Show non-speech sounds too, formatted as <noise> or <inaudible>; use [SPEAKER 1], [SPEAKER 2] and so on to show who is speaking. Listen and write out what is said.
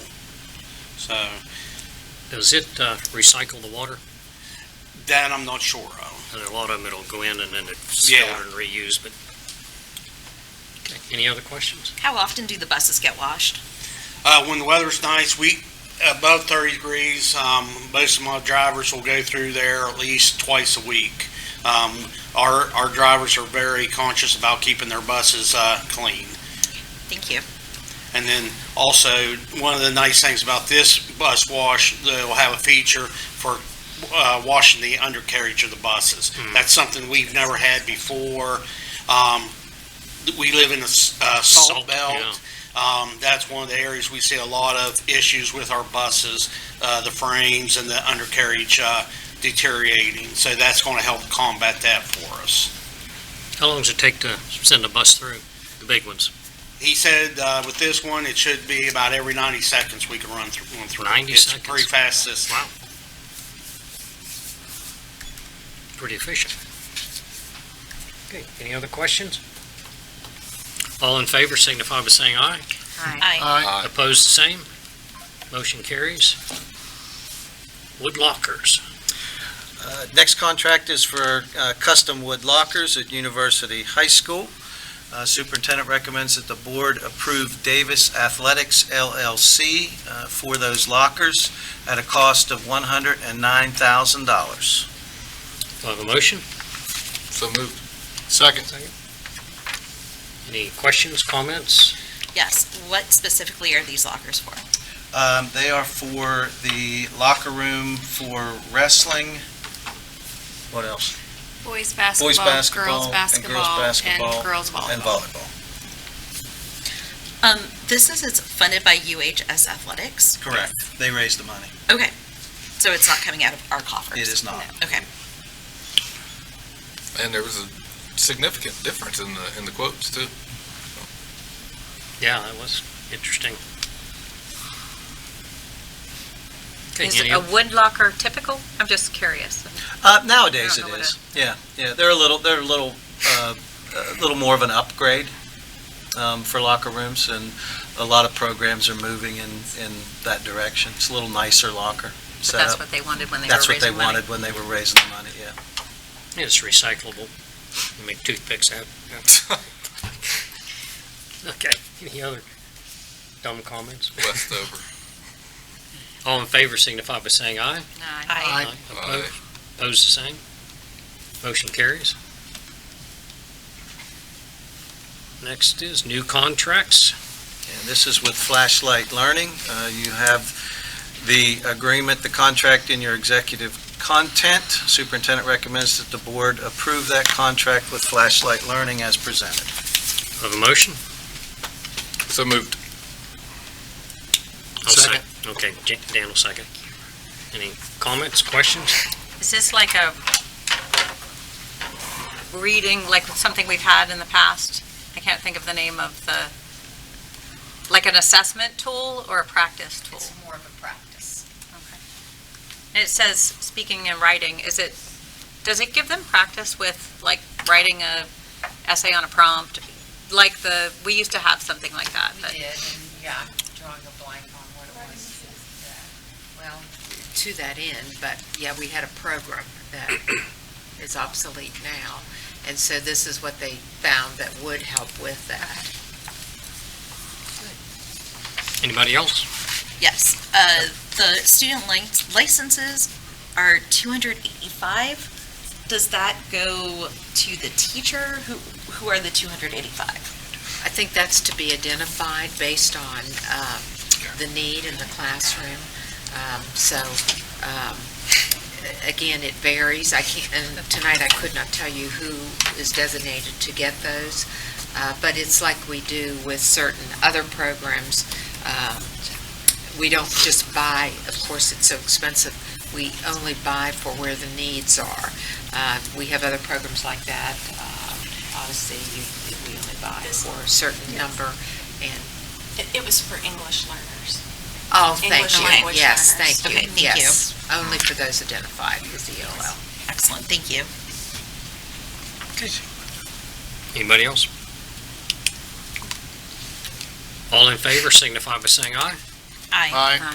[SPEAKER 1] So
[SPEAKER 2] Does it uh, recycle the water?
[SPEAKER 1] that I'm not sure of.
[SPEAKER 2] And a lot of them, it'll go in and then it's
[SPEAKER 1] Yeah.
[SPEAKER 2] stored and reused, but. Okay, Any other questions?
[SPEAKER 3] How often do the buses get washed?
[SPEAKER 1] Uh, when the weather's nice, we, above thirty degrees, um, most of my drivers will go through there at least twice a week. Um, our, our drivers are very conscious about keeping their buses, uh, clean.
[SPEAKER 3] Thank you.
[SPEAKER 1] And then also, one of the nice things about this bus wash, they'll have a feature for uh, washing the undercarriage of the buses.
[SPEAKER 2] Hmm.
[SPEAKER 1] That's something we've never had before. Um, We live in a s- uh, salt
[SPEAKER 2] Salt, yeah.
[SPEAKER 1] belt. Um, That's one of the areas we see a lot of issues with our buses, uh, the frames and the undercarriage uh, deteriorating. So that's going to help combat that for us.
[SPEAKER 2] How long does it take to send a bus through, the big ones?
[SPEAKER 1] He said, uh, with this one, it should be about every ninety seconds we can run through, one through.
[SPEAKER 2] 90
[SPEAKER 1] It's
[SPEAKER 2] seconds?
[SPEAKER 1] a pretty fast system.
[SPEAKER 2] Wow. Pretty efficient. Okay, any other questions? All in favor signify by saying aye.
[SPEAKER 3] Aye.
[SPEAKER 4] Uh,
[SPEAKER 2] Aye. Opposed, the same. Motion carries. Wood lockers.
[SPEAKER 4] Uh, Next contract is for uh, custom wood lockers at University High School. Uh, Superintendent recommends that the board approve Davis Athletics LLC uh, for those lockers at a cost of $109,000.
[SPEAKER 2] Do I have a motion?
[SPEAKER 5] So moved. Second.
[SPEAKER 2] Any questions, comments?
[SPEAKER 3] Yes, what specifically are these lockers for?
[SPEAKER 4] Um, They are for the locker room for wrestling. What else?
[SPEAKER 6] Boys
[SPEAKER 4] Boys
[SPEAKER 6] basketball,
[SPEAKER 4] basketball
[SPEAKER 6] girls
[SPEAKER 4] and girls
[SPEAKER 6] basketball,
[SPEAKER 4] basketball
[SPEAKER 6] and girls
[SPEAKER 4] and
[SPEAKER 6] volleyball.
[SPEAKER 4] volleyball.
[SPEAKER 3] Um, this is, it's funded by UHS Athletics,
[SPEAKER 4] Correct. They raise the money.
[SPEAKER 3] so it's not coming out of our coffers.
[SPEAKER 4] It is not.
[SPEAKER 3] Okay,
[SPEAKER 5] And there was a significant difference in the, in the quotes too. <laughs>
[SPEAKER 2] Yeah, that was interesting. Okay,
[SPEAKER 7] Is
[SPEAKER 2] any
[SPEAKER 7] a
[SPEAKER 2] other-
[SPEAKER 7] wood locker typical? I'm just curious.
[SPEAKER 4] Uh, nowadays
[SPEAKER 7] I
[SPEAKER 4] it
[SPEAKER 7] don't know
[SPEAKER 4] is. Yeah, yeah. They're a little, they're a little, uh, a little more of an upgrade um, for locker rooms, and a lot of programs are moving in in that direction. It's a little nicer locker
[SPEAKER 7] But that's
[SPEAKER 4] setup.
[SPEAKER 7] what they wanted when they were
[SPEAKER 4] That's what they
[SPEAKER 7] raising money.
[SPEAKER 4] wanted when they were raising the money. Yeah.
[SPEAKER 2] It's recyclable. You Make toothpicks out. Okay, any other dumb comments?
[SPEAKER 5] West over.
[SPEAKER 2] <laughs> All in favor signify by saying aye.
[SPEAKER 7] No,
[SPEAKER 3] aye.
[SPEAKER 2] Opposed, Opposed, the same. Motion carries. Next is new contracts.
[SPEAKER 4] And this is with Flashlight Learning. Uh, You have the agreement, the contract in your executive content. Superintendent recommends that the board approve that contract with Flashlight Learning as presented.
[SPEAKER 2] Have a motion?
[SPEAKER 5] So moved.
[SPEAKER 2] I'll sec- Okay, J- Dan will second. Any comments, questions?
[SPEAKER 7] Is this like a reading, like something we've had in the past? I can't think of the name of the, like an assessment tool or a practice tool? It's more of a practice. It says speaking and writing, is it, does it give them practice with like writing a essay on a prompt? Like the, we used to have something like that, but.
[SPEAKER 8] did, and yeah, I'm drawing a blank on what it was. Well, to that end, but yeah, we had a program that is obsolete now, and so this is what they found that would help with that.
[SPEAKER 2] Anybody else?
[SPEAKER 3] Yes, uh, the student lic- licenses are two hundred eighty-five. Does that go to the teacher? Who, who are the two hundred eighty-five?
[SPEAKER 8] I think that's to be identified based on um, the need in the classroom. Um, So, um, a- again, it varies. I can't, and tonight I could not tell you who is designated to get those, Uh, but it's like we do with certain other programs. Um, We don't just buy, of course, it's so expensive, we only buy for where the needs are. Uh, We have other programs like that. Um, Obviously, you- we only buy for a certain number, and,
[SPEAKER 9] It, it was for English learners.
[SPEAKER 8] oh, thank
[SPEAKER 9] English
[SPEAKER 8] you.
[SPEAKER 9] language
[SPEAKER 8] Yes,
[SPEAKER 9] learners.
[SPEAKER 8] thank you.
[SPEAKER 3] Okay, thank you.
[SPEAKER 8] Yes, Only for those identified as the E ELL.
[SPEAKER 3] Excellent, thank you.
[SPEAKER 2] Anybody else? All in favor signify by saying aye.
[SPEAKER 3] Aye.
[SPEAKER 5] Aye.